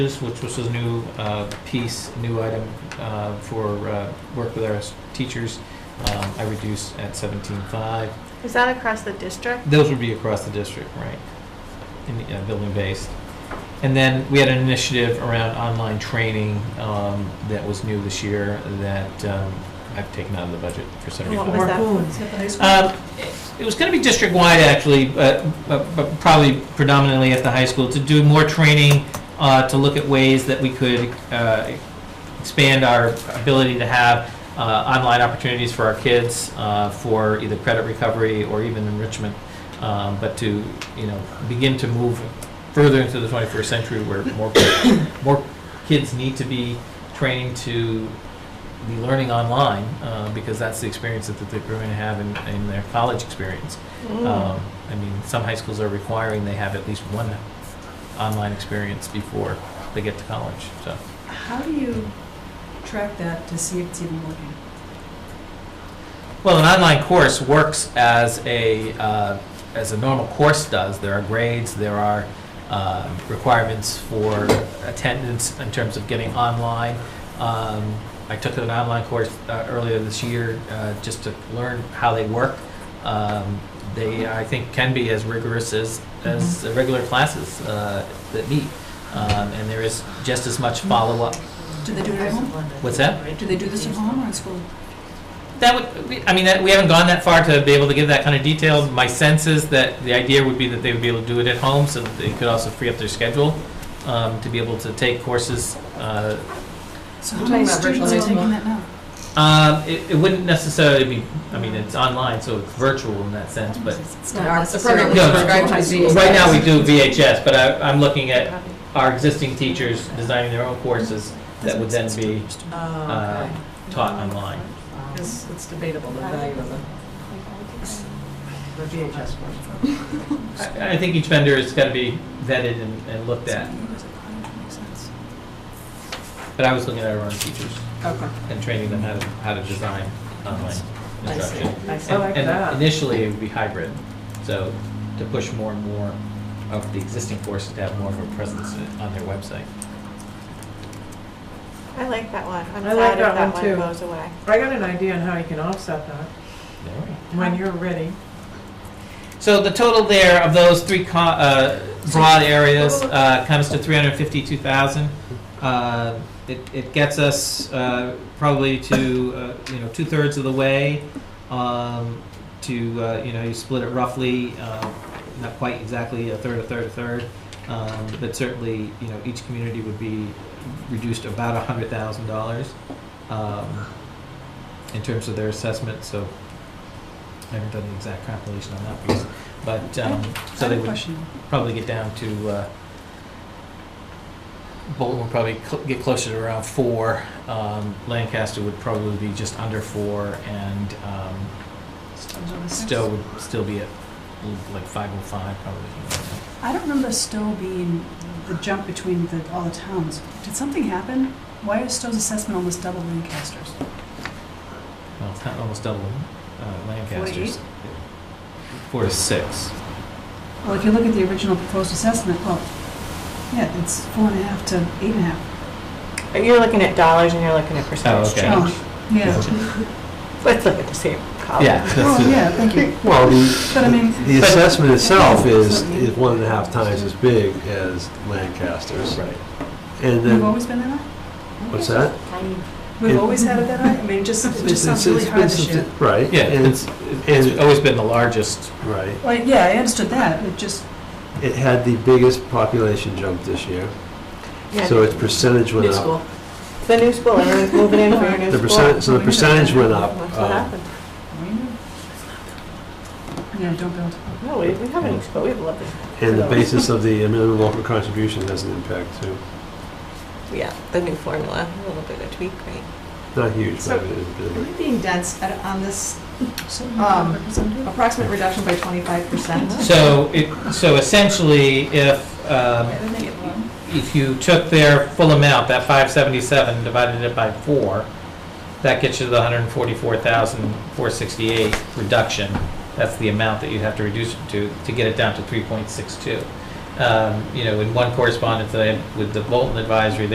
which was a new uh, piece, new item uh, for uh, work with our s- teachers, um, I reduced at 17.5. Is that across the district? Those would be across the district, right? In the, uh, building based. And then we had an initiative around online training um, that was new this year that um, I've taken out of the budget for And 75. what was that? for? Um, it- It was going to be district-wide, actually, but but- but probably predominantly at the high school, to do more training, uh, to look at ways that we could uh, expand our ability to have uh, online opportunities for our kids uh, for either credit recovery or even enrichment, um, but to, you know, begin to move further into the 21st century where more, more kids need to be training to be learning online uh, because that's the experience that they're going to have in, in their college experience. Hmm. Um, I mean, some high schools are requiring they have at least one online experience before they get to college. So How do you track that to see if it's even working? Well, an online course works as a, uh, as a normal course does. There are grades, there are uh, requirements for attendance in terms of getting online. Um, I took an online course uh, earlier this year uh, just to learn how they work. Um, They, I think, can be as rigorous as, as the regular classes uh, that meet. Um, And there is just as much follow-up. Do they do it at home? What's that? Do they do this at home or at school? That would, we- I mean, that- we haven't gone that far to be able to give that kind of detail. My sense is that the idea would be that they would be able to do it at home, so that they could also free up their schedule um, to be able to take courses. uh, So We're how many talking about virtual students are as well. taking that now? um, It it wouldn't necessarily be, I mean, it's online, so it's virtual in that sense, but It's not necessarily No, prescribed to be- right now we do VHS, but I- I'm looking at our existing teachers designing their own courses that would then be uh, taught online. Oh, It's, it's debatable, the value of the, the VHS one. I I think each vendor has got to be vetted and and looked at, but I was looking at our own teachers. Okay. and training them how to, how to design online I see. instruction. I see. And- I like and that. Initially, it would be hybrid, so to push more and more of the existing courses to have more of a presence on their website. I like that one. I'm I like sad if that that one one too. goes away. I got an idea on how you can offset that There we go. when you're ready. So the total there of those three co- uh, broad areas uh, comes to 352,000. Uh, It it gets us uh, probably to, uh, you know, two-thirds of the way um, to, uh, you know, you split it roughly, uh, not quite exactly a third, a third, a third, um, but certainly, you know, each community would be reduced about $100,000 um, in terms of their assessment, so I haven't done the exact compilation on that piece, but, um, so they would probably get down to, uh, Bolton would probably cl- get closer to around four, um, Lancaster would probably be just under four, and, um, Stowe would still be at like five oh five probably. I don't remember Stowe being the jump between the, all the towns. Did something happen? Why is Stowe's assessment almost double Lancaster's? Well, it's not almost double, uh, Lancaster's. eight? Four to six. Well, if you look at the original proposed assessment, well, yeah, it's four and a half to eight and a half. But you're looking at dollars and you're looking at percentage okay. change. Oh, Yeah, Let's look at the same column. Yeah. that's well, it. Oh, yeah, thank you. Well, But I mean- the, the assessment itself is, Something. is one and a half times as big as Lancaster's. Right. And We've then, always been that high? what's that? We've It- always had it that high? I mean, just, it just sounds really high this year. Right. Yeah, and- it's, it's always been the largest. Right. Well, yeah, I understood that, it just, It had the biggest population jump this year, Yeah, so its percentage went New up. school. It's the new school, everyone's moving in for your new The school. percent, so the percentage went up. That's uh, what happened. yeah, don't build. No, we, we have a new school, we have a lovely. And the basis of the minimum local contribution has an impact too. Yeah, the new formula, a little bit of tweak, right? Not huge, So- but it is a bit. Am I being dense at- on this Um, approximate reduction by 25%? So it, so essentially, if, um, if you took their full amount, that five seventy-seven, divided it by four, that gets you to the hundred and forty-four thousand, four sixty-eight reduction. That's the amount that you'd have to reduce it to, to get it down to three point six two. um, you know, in one correspondence that I had with the Bolton Advisory,